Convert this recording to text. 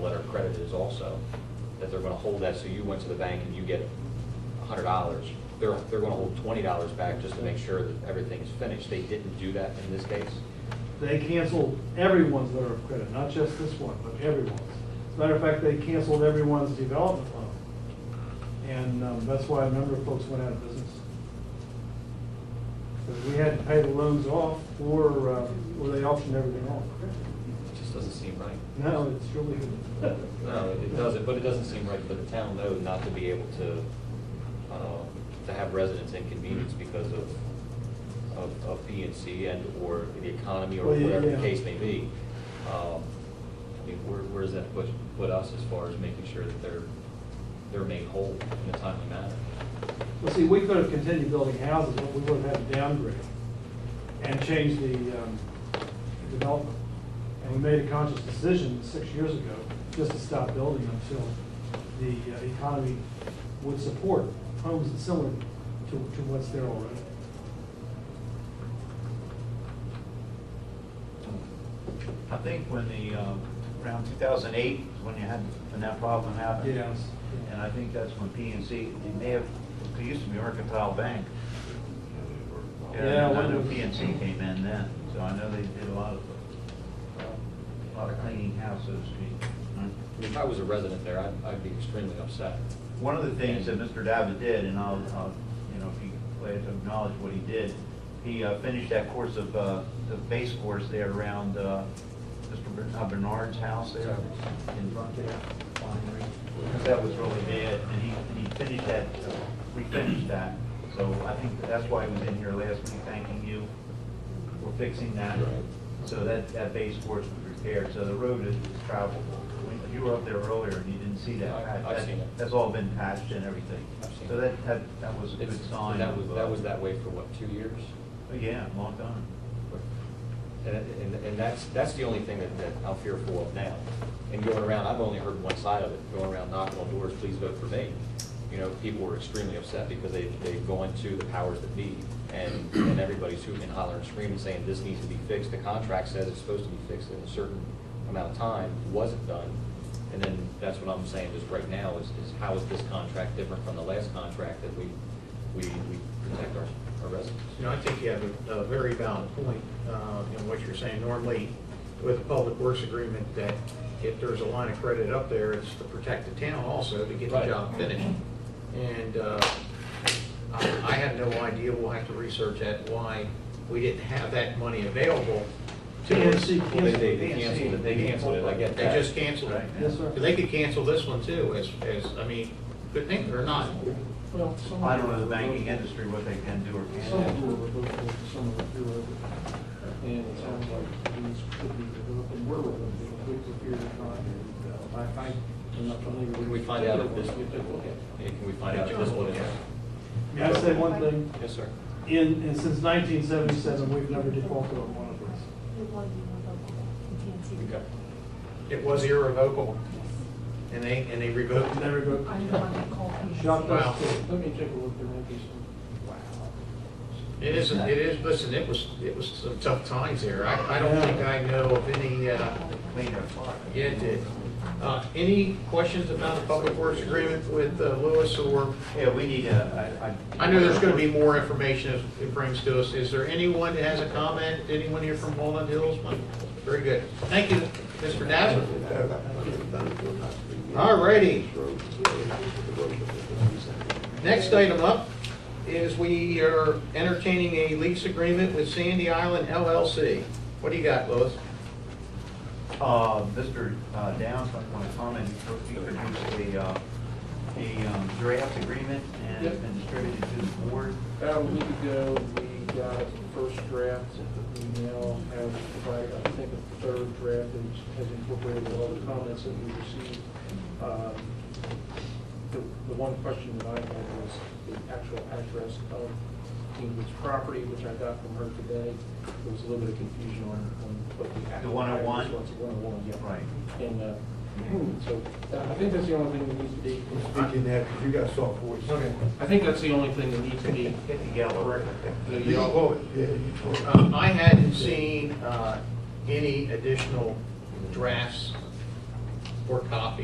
credit is also, that they're going to hold that, so you went to the bank and you get hundred dollars. They're, they're going to hold twenty dollars back just to make sure that everything's finished. They didn't do that in this case. They canceled everyone's letter of credit, not just this one, but everyone's. As a matter of fact, they canceled everyone's development loan. And um, that's why a number of folks went out of business. Because we had to pay the loans off or, uh, or they auctioned everything off. It just doesn't seem right. No, it's really. No, it- it doesn't, but it doesn't seem right for the town, though, not to be able to, uh, to have residents Hmm. inconvenienced because of, of, of P and C and/or the economy or Well, yeah, whatever the yeah. case may be. Um, I mean, where, where does that put, put us as far as making sure that they're, they're made whole in a timely manner? Well, see, we could have continued building houses, but we would have had to downgrade and change the um, development. And we made a conscious decision six years ago just to stop building until the uh, economy would support homes that's similar to, to what's there already. I think when the, um, around 2008 is when you had, when that problem happened. Yes. And I think that's when PNC, they may have, they used to be Mercantile Bank. Yeah, And I know when- PNC came in then, so I know they did a lot of, a lot of cleaning house, so to speak. I mean, If I was a resident there, I'd, I'd be extremely upset. One of the things that Mr. Davitt did, and I'll, I'll, you know, if you glad to acknowledge what he did, he uh, finished that course of, uh, the base course there around uh, Mr. Bern- uh, Bernard's house there in front there. Because that was really bad, and he, and he finished that, uh, refinished that. So I think that's why he was in here last week thanking you for fixing that. So that, that base course was repaired, so the road is is travelable. When You were up there earlier and you didn't see that. I- I've That- seen it. That's all been patched and everything. I've seen So it. that, that, that was a good It's- sign. That was, of, uh, that was that way for what, two years? Yeah, long time. And, and, and that's, that's the only thing that, that I'm fearful of now. And going around, I've only heard one side of it, going around knocking on doors, please vote for me. You know, people were extremely upset because they, they've gone to the powers that be, and, and everybody's hooting and hollering and screaming, saying this needs to be fixed, the contract says it's supposed to be fixed in a certain amount of time, wasn't done. And then that's what I'm saying is right now is, is how is this contract different from the last contract that we, we, we protect our, our residents? You know, I think you have a a very valid point uh, in what you're saying. Normally, with a public works agreement, that if there's a line of credit up there, it's to protect the town also to get the Right. job finished. And uh, I I have no idea, we'll have to research that, why we didn't have that money available to us. PNC Well, they- they, canceled. they canceled it, they canceled it, I get They that. just canceled it. Yes, sir. They could cancel this one too, as, as, I mean, could they or not? Well, some. I don't know the banking industry, what they can do or Some can't of them do. are local, some of them are And it sounds like these could be developed and were developed in a quick period of time. And, uh, I, I- I'm not familiar. Can we find out if this, yeah, can we find out if this one is? May I say one thing? Yes, sir. In, and since nineteen seventy-seven, we've never defaulted on one of these. Okay. It was irrevocable, and they, and they revoked it. Never go. I'm the one that called. Shocked Wow. us to. Let me take a look, there might be some. It is, it is, listen, it was, it was some tough times there. I, I don't think I know of any, uh, Clean their fire. yeah, it did. Uh, any questions about the public works agreement with uh, Lewis or, Yeah, we need a, I. I know there's gonna be more information as it brings to us. Is there anyone that has a comment? Anyone here from Walnut Hills? Very good. Thank you, Mr. Dazzler. All righty. Next item up is we are entertaining a lease agreement with Sandy Island LLC. What do you got, Lois? Uh, Mr. uh, Downs, I want to comment, he produced a, uh, a um, draft agreement and it's been distributed to the board. About a week ago, we got a first draft that we now have, provided. I think a third draft that has incorporated all the comments that we received. Um, The the one question that I had was the actual address of Ingrid's property, which I got from her today. There was a little bit of confusion on on what the actual. The 101? address was. 101, yeah. Right. And uh, so uh, I think that's the only thing that needs to be. Speaking that, because you got soft voice. Okay, I think that's the only thing that needs to be Hit the yellow. the You yellow. vote, yeah, you vote. Um, I hadn't seen uh, any additional drafts or copies.